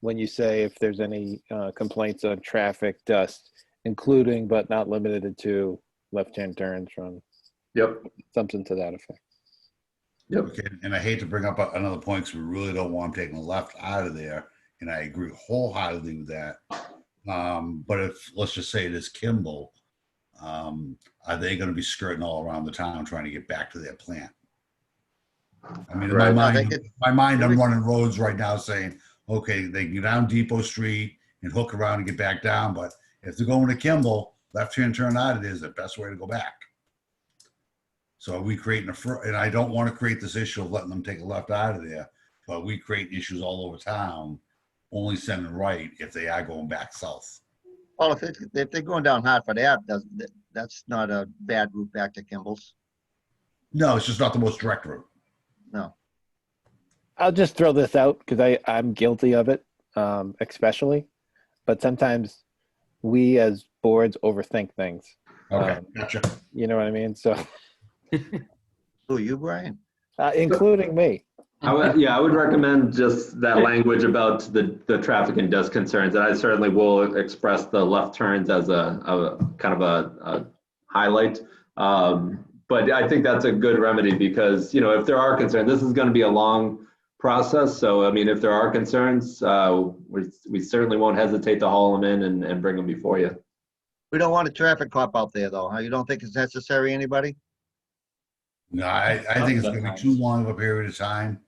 when you say if there's any uh, complaints on traffic dust, including but not limited to left-hand turns from Yep, something to that effect. yep. Okay, and I hate to bring up a- another point because we really don't want them taking the left out of there, and I agree wholeheartedly with that. Um, but if let's just say it is Kimball, um, are they going to be skirting all around the town trying to get back to their plant? I mean, in my Right. I mind, think it- my mind, I'm running roads right now saying, okay, they can go down Depot Street and hook around and get back down, but if they're going to Kimball, left hand turn out, it is the best way to go back. So are we creating a, fir- and I don't want to create this issue of letting them take a left out of there, but we create issues all over town, only sending right if they are going back south. Well, if, it- if they're going down Hartford Ave, that's, that's not a bad route back to Kimball's. No, it's just not the most direct route. I'll just throw this out because I I'm guilty of it, um, especially. But sometimes we as boards overthink things. Okay, Um, gotcha. You know what I mean? So, Who, you, Brian? uh, including me. I would, yeah, I would recommend just that language about the, the traffic and dust concerns. And I certainly will express the left turns as a, a kind of a, a highlight. Um, but I think that's a good remedy because, you know, if there are concerns, this is going to be a long process. So, I mean, if there are concerns, uh, we, we certainly won't hesitate to haul them in and, and bring them before you. We don't want a traffic cop out there, though. huh? You don't think it's necessary, anybody? No, I, I think it's going to be Sometimes. too long of a period of time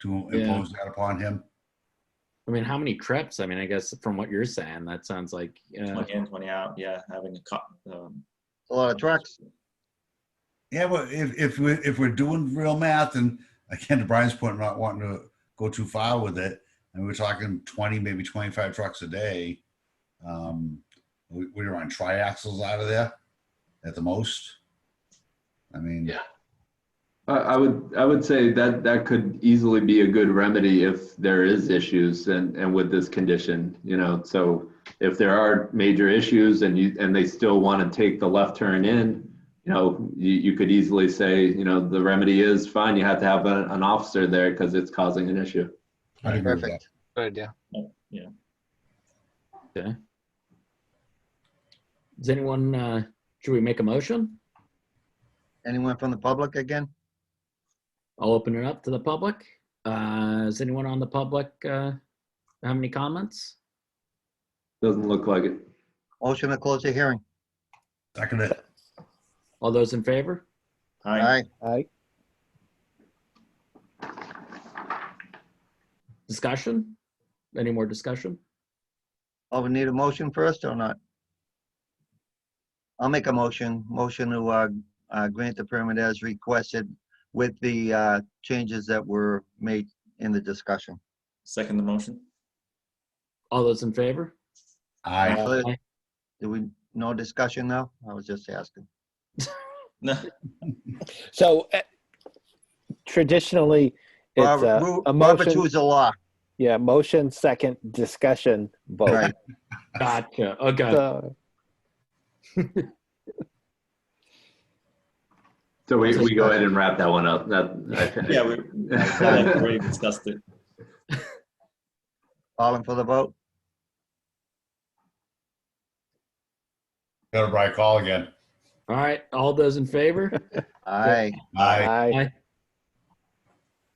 to Yeah. impose that upon him. I mean, how many trips? I mean, I guess from what you're saying, that sounds like uh, 20 in, 20 out. Yeah, having a cop. Um, A lot of trucks. Yeah, but if, if we're, if we're doing real math and again, to Brian's point, not wanting to go too far with it, and we're talking twenty, maybe twenty-five trucks a day. Um, we, we were on triaxles out of there at the most. I mean, Yeah. I, I would, I would say that that could easily be a good remedy if there is issues and, and with this condition, you know, so if there are major issues and you, and they still want to take the left turn in, you know, you, you could easily say, you know, the remedy is fine, you have to have a- an officer there because it's causing an issue. I agree with that. Perfect. Good, yeah. Does anyone, uh, should we make a motion? Anyone from the public again? I'll open it up to the public. Uh, is anyone on the public, uh, have any comments? Doesn't look like it. Motion to close the hearing. Second it. All those in favor? All hi. right, I Discussion? Any more discussion? oh, we need a motion first or not? I'll make a motion, motion to, uh, uh, grant the permit as requested with the, uh, changes that were made in the discussion. Second the motion. All those in favor? I, So, Aye. Do we, no discussion now? I was just asking. No. So eh, traditionally, it's uh, Robert- a, Ru- a Robert's motion. rules of law. Yeah, motion, second, discussion, vote. Right. Gotcha. Okay. So, So we, we go ahead and wrap that one up. That, I- Yeah, we, we already discussed it. Calling for the vote. got a bright call again. All right. All those in favor? Aye. I, I,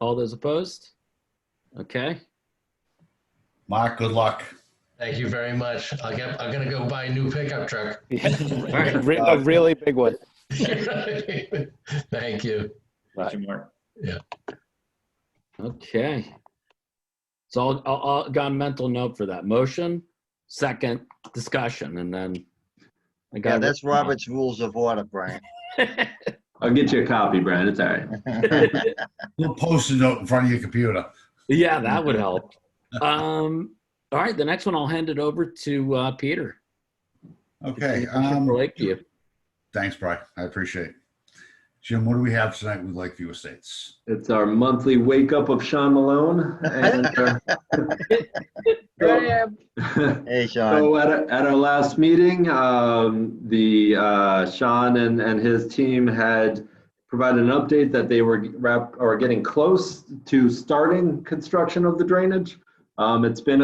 All those opposed? Okay. Mark, good luck. Thank you very much. I'll get, I'm gonna go buy a new pickup truck. a re- a really big one. Thank you. Thank you, Mark. Okay. So I'll, I'll, I'll got a mental note for that. Motion, second, discussion, and then. I got Yeah, it that's written down. Robert's rules of order, Brian. I'll get you a copy, Brian, it's all right. Little post-it note in front of your computer. Yeah, that would help. Um, all right, the next one, I'll hand it over to, uh, Peter. Okay. um, For Lakeview. Thanks, Brian. I appreciate it. Jim, what do we have tonight with Lakeview Estates? It's our monthly wake up of Sean Malone and. uh, so- Hey, Sean. So at, our- at our last meeting, um, the, uh, Sean and, and his team had provided an update that they were wrap, or getting close to starting construction of the drainage. Um, it's been